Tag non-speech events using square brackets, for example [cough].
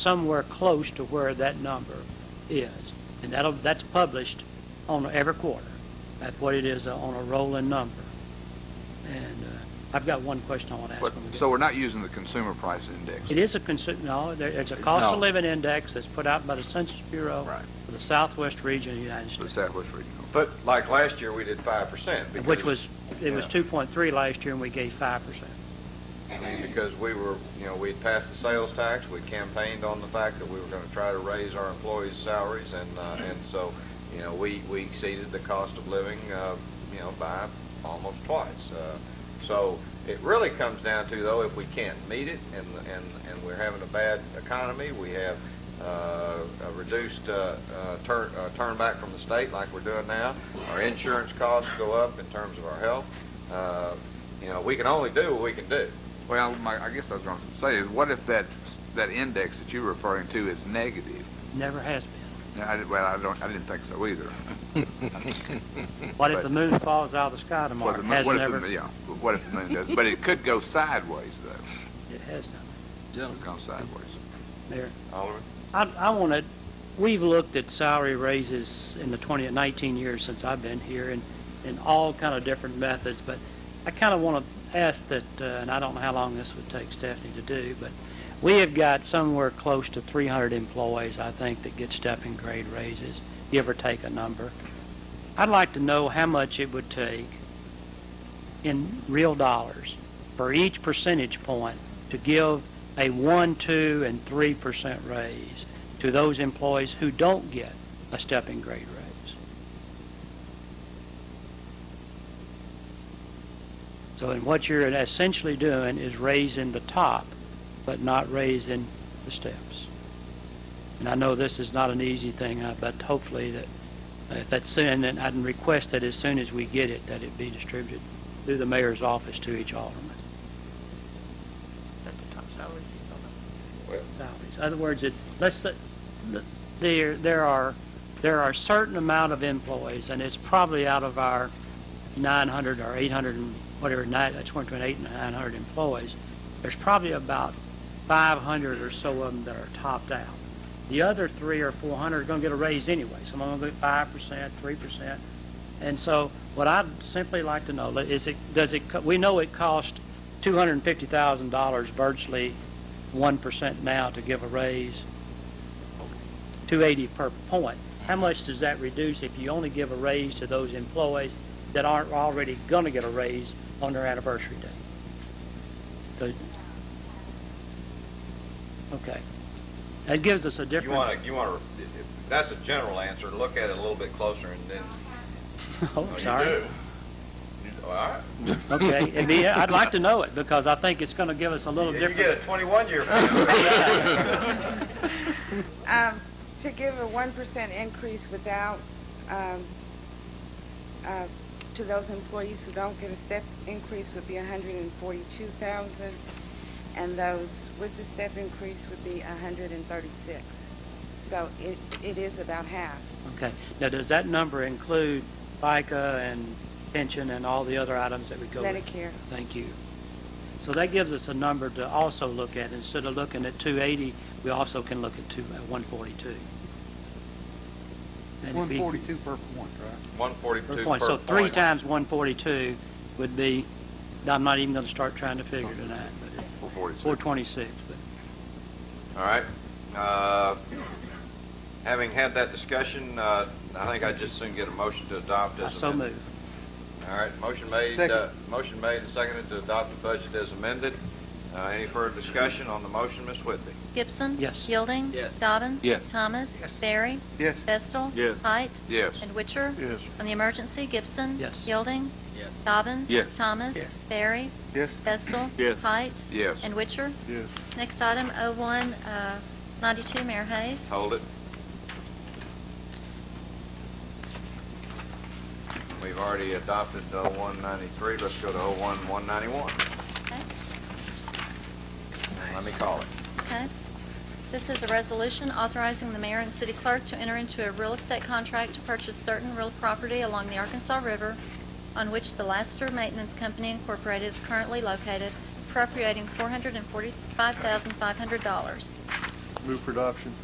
somewhere close to where that number is. And that'll, that's published on every quarter. That's what it is uh, on a rolling number. And uh, I've got one question I want to ask. But, when we get- so we're not using the consumer price index? It is a consi, no, there- it's a cost No. of living index that's put out by the Census Bureau Right. for the southwest region of the United The States. Southwest Regional. But like last year, we did five percent. Which was, it was yeah. 2.3 last year and we gave 5%. I mean, because we were, you know, we'd passed the sales tax, we campaigned on the fact that we were gonna try to raise our employees' salaries, and, uh, and so, you know, we, we exceeded the cost of living, uh, you know, by almost twice. Uh, So it really comes down to, though, if we can't meet it, and, and, and we're having a bad economy, we have, uh, a reduced, uh, uh, turn, uh, turn back from the state like we're doing now, our insurance costs go up in terms of our health, uh, you know, we can only do what we can do. Well, my, I guess I was gonna say is, what if that, that index that you're referring to is negative? Never has [laughs] been. Now, I, did- well, I don't, I didn't think so either. What if But- the moon falls out of the sky tomorrow? What if It the Has moon- what if the never, moon- Yeah, what if the moon does, but it could go sideways though, it has not. it could go sideways. Mayor, Alderman? I, I want to, we've looked at salary raises in the 20, 19 years since I've been here and, and all kind of different methods, but I kind of want to ask that, uh, and I don't know how long this would take Stephanie to do, but we have got somewhere close to 300 employees, I think, that get step and grade raises, give or take a number. I'd like to know how much it would take in real dollars for each percentage point to give a 1, 2, and 3% raise to those employees who don't get a stepping grade raise. So, and what you're essentially doing is raising the top, but not raising the steps. And I know this is not an easy thing, uh, but hopefully that, uh, if that's soon, then I'd request that as soon as we get it, that it be distributed through the mayor's office to each alderman. At the top salaries, you don't know. salaries. In other words, it, let's, say- th- there, there are, there are a certain amount of employees, and it's probably out of our 900 or 800 and whatever, nine, that's one between eight and 900 employees, there's probably about 500 or so of them that are topped out. The other three or 400 are going to get a raise anyway, some of them get 5%, 3%. And so what I'd simply like to know li- is it, does it, co- we know it cost $250,000 virtually 1% now to give a raise, 280 per point. How much does that reduce if you only give a raise to those employees that aren't already going to get a raise on their anniversary day? So- Okay. That gives us a You different. wanna, you wanna, that's a general answer, look at it a little bit closer and then. [laughs] Oh, no, you sorry. do. You- All right. Okay, [laughs] it'd be- I'd like to know it because I think it's going to give us a little You get different. a twenty-one [laughs] year. plan. Um, to give a one percent increase without, um, uh, to those employees who don't get a step increase would be a hundred and forty-two thousand, and those with the step increase would be a hundred and thirty-six. So it, it is about half. Okay. Now, does that number include FICA and pension and all the other items that we go with? Medicare, Thank you. So that gives us a number to also look at. Instead of looking at 280, we also can look at two- at 142. And it'd be- 142 per point, right? One forty-two per per point. point. So three times 142 would be, I'm not even going to start trying to figure tonight, but it's Four forty-six. 426. but- All right. Uh, Having had that discussion, uh, I think I'd just soon get a motion to adopt I as so amended. move. All right, motion made, Second. uh, motion made and seconded to adopt the budget as amended. Uh, Any further discussion on the motion, Ms. Whitby? Gibson? Yes. Yielding? Yes. Dobbins? Yes. Thomas? Barry? Yes. Vestal? Yes. Height? Yes. And Witcher? Yes. On the emergency, Gibson? Yes. Yielding? Yes. Dobbins? Yes. Thomas? Yes. Barry? Yes. Vestal? Yes. Height? Yes. And Witcher? Yes. Next item, 01, uh, 92, Mayor Hayes. Oh. Hold it. We've already adopted uh, 0193, let's go to 01191. Okay. Let me call it. Okay. This is a resolution authorizing the mayor and city clerk to enter into a real estate contract to purchase certain real property along the Arkansas River on which the Laster Maintenance Company Incorporated is currently located, appropriating $445,500. Move for adoption.